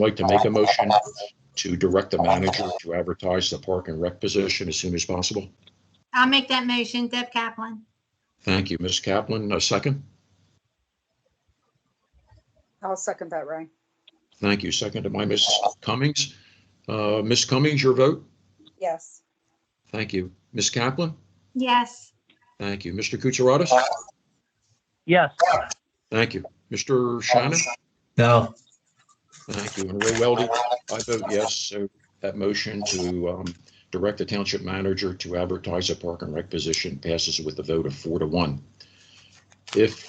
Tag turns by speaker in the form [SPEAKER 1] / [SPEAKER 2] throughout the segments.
[SPEAKER 1] Like to make a motion to direct the manager to advertise the park and rec position as soon as possible?
[SPEAKER 2] I'll make that motion, Deb Kaplan.
[SPEAKER 1] Thank you, Ms. Kaplan. A second?
[SPEAKER 3] I'll second that, Ray.
[SPEAKER 1] Thank you. Second to my Ms. Cummings. Uh, Ms. Cummings, your vote?
[SPEAKER 3] Yes.
[SPEAKER 1] Thank you. Ms. Kaplan?
[SPEAKER 2] Yes,
[SPEAKER 1] Thank you. Mr. Kutsaratus?
[SPEAKER 4] Yes,
[SPEAKER 1] Thank you. Mr. Shannon?
[SPEAKER 5] No,
[SPEAKER 1] Thank you. And Ray Weldy, I vote yes. So that motion to um, direct the township manager to advertise a park and rec position passes with a vote of four to one. If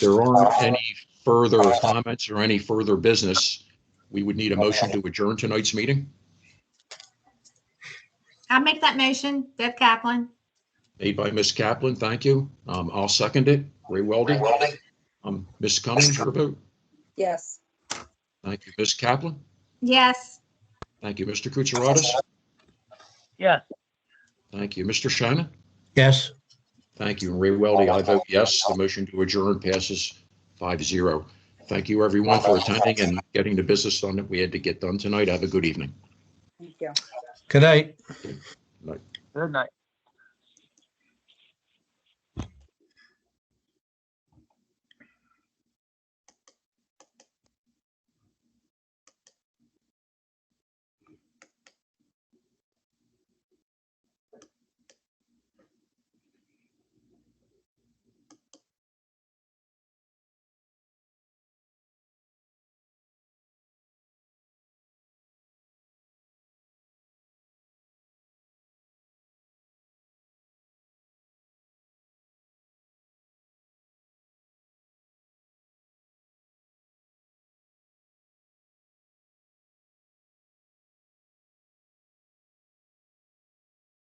[SPEAKER 1] there aren't any further comments or any further business, we would need a motion to adjourn tonight's meeting,
[SPEAKER 2] I'll make that motion, Deb Kaplan.
[SPEAKER 1] made by Ms. Kaplan. Thank you. Um, I'll second it. Ray Weldy. Um, Ms. Cummings, your vote.
[SPEAKER 3] Yes.
[SPEAKER 1] Thank you, Ms. Kaplan.
[SPEAKER 2] Yes,
[SPEAKER 1] Thank you, Mr. Kutsaratus.
[SPEAKER 4] yes,
[SPEAKER 1] Thank you, Mr. Shannon.
[SPEAKER 5] yes,
[SPEAKER 1] Thank you. And Ray Weldy, I vote yes. The motion to adjourn passes 5-0. Thank you, everyone, for attending and getting the business done that we had to get done tonight. Have a good evening.
[SPEAKER 3] Thank you.
[SPEAKER 5] good night.
[SPEAKER 4] good night.